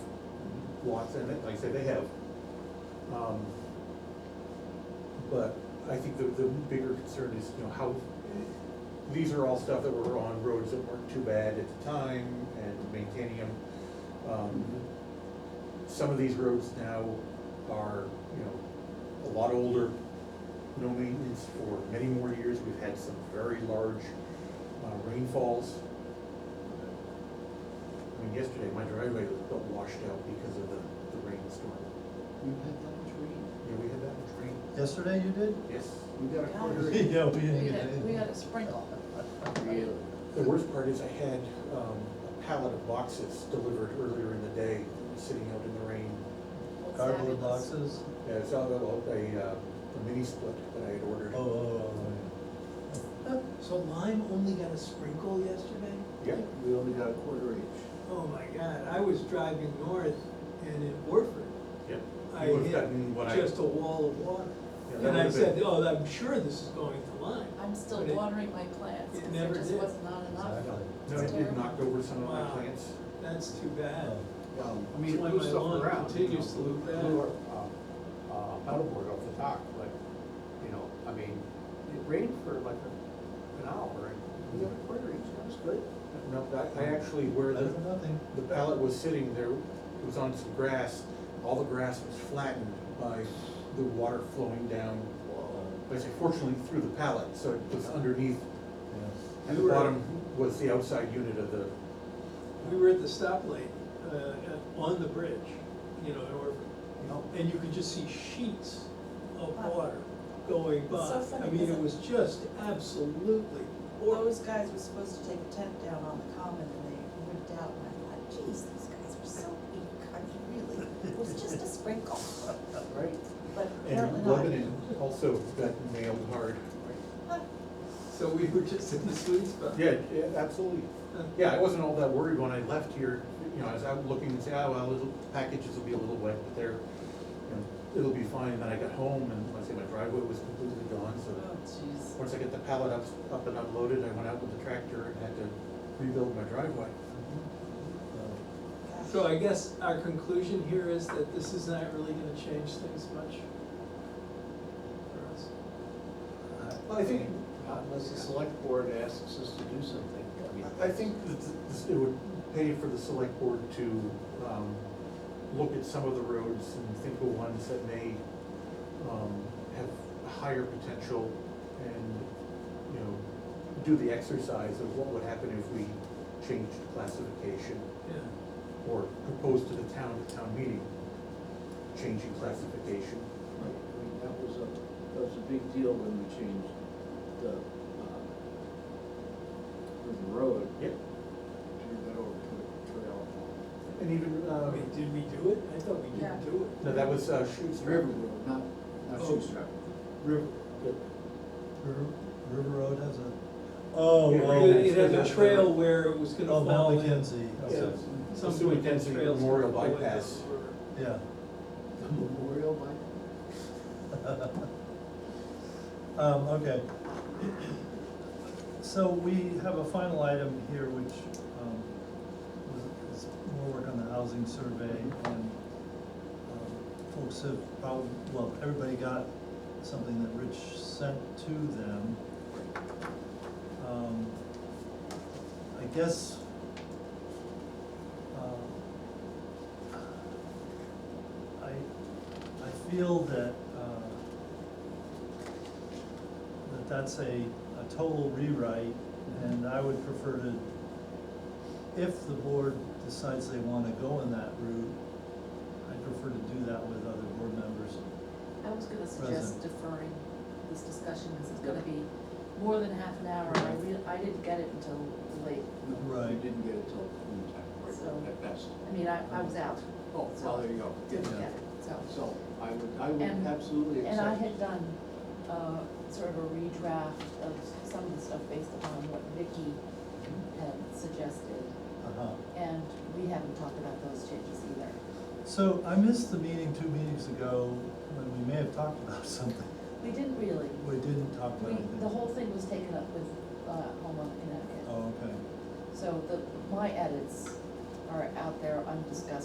lots in it, like I said, they have. Um, But I think the, the bigger concern is, you know, how, these are all stuff that were on roads that weren't too bad at the time and maintaining them. Um, Some of these roads now are, you know, a lot older, no maintenance for many more years. We've had some very large uh, rainfalls. I mean, yesterday, my driveway was about washed out because of the, the rainstorm. We've had that much rain. Yeah, we had that much rain. Yesterday you did? Yes. We got a quarter inch. Yeah, we didn't We get had, it. we had a sprinkle. Really? The worst part is I had um, a pallet of boxes delivered earlier in the day, sitting out in the rain. Well, Cardboard fabulous. boxes? Yeah, It's out of a, a uh, a mini split that I had ordered. Oh, oh, So Lime only got a sprinkle yesterday? Yeah. We only got a quarter inch. Oh my God, I was driving north and in Warford, Yeah. I You would've hit gotten what I- just a wall of water. Yeah, that And I would've said, been- oh, I'm sure this is going to Lime. I'm still But it- watering my plants, it because never there just did. was not enough. Exactly. No, it did knock over some of my Wow. plants. That's too bad. oh. Well, I mean, my lawn continues to look blew bad. a, uh, uh, paddleboard off the dock, but, you know, I mean, it rained for like a- an hour, and we got a quarter inch, that was good. No, I- I actually, where Better the, than nothing. the pallet was sitting there, it was on some grass, all the grass was flattened by the water flowing down. I say fortunately through the pallet, so it was underneath, Yeah. at the We were- bottom was the outside unit of the, We were at the stoplight, uh, on the bridge, you know, in Orford. And you could just see sheets of water going It's so by. I funny, mean, it isn't it? was just absolutely horrible. Those guys were supposed to take a tent down on the common and they ripped out and I thought, geez, these guys were so weak, I mean, really, it was just a sprinkle, right? but apparently and not. Lebanon also got nailed hard. So we were just in the sweet spot. Yeah, yeah, absolutely. Yeah, I wasn't all that worried when I left here, you know, I was out looking and saying, oh, well, little packages will be a little wet, but they're, you know, it'll be fine, and then I got home, and like I say my driveway was completely gone, so. Oh, jeez. Once I got the pallet up, up and unloaded, I went out with the tractor and had to rebuild my driveway. Uh, So I guess our conclusion here is that this is not really gonna change things much for us. Well, I think, Not Unless the select board asks us to do something, I mean. I think that this- it would pay for the select board to, um, look at some of the roads and think of ones that may, um, have higher potential and, you know, do the exercise of what would happen if we changed classification Yeah, or proposed to the town, at town meeting, changing classification. I mean, that was a, that was a big deal when we changed the, uh, the road, Yep. turned that over to a trail. And even, I uh, mean, did we do it? I thought we Yeah. didn't do it. no, that was, uh, Shoe It's River Road, not, not Oh. Shoestrap. River. River, River Road has a, oh, Yeah, oh. right It next it to had a the- trail where it was Oh, gonna fall Mount in. Mackenzie, Yeah. okay, Some Pursuant to trails Memorial going down Bypass. the river. yeah. The memorial by. Um, okay. So we have a final item here, which, um, was, is more work on the housing survey and, um, folks have probably, well, everybody got something that Rich sent to them. Um, I guess, um, I, I feel that, uh, that that's a, a total rewrite, and I would prefer to, if the board decides they wanna go in that route, I'd prefer to do that with other board members. I was gonna Present. suggest deferring this discussion, because it's gonna be more than half an hour, I rea- I didn't get it until late. You Right. didn't get it till noon time, So- right, at best. I mean, I, I was out, Oh, well, there you go. didn't Yeah. get it, so. So I would, I would And- absolutely accept. And I had done, uh, sort of a redraft of some of the stuff based upon what Vicky had suggested, Uh-huh. and we haven't talked about those changes either. So I missed the meeting two meetings ago, when we may have talked about something, We didn't really, we didn't talk about we, anything. the whole thing was taken up with, uh, Homeland Connecticut. Oh, okay. So the, my edits are out there undiscussed.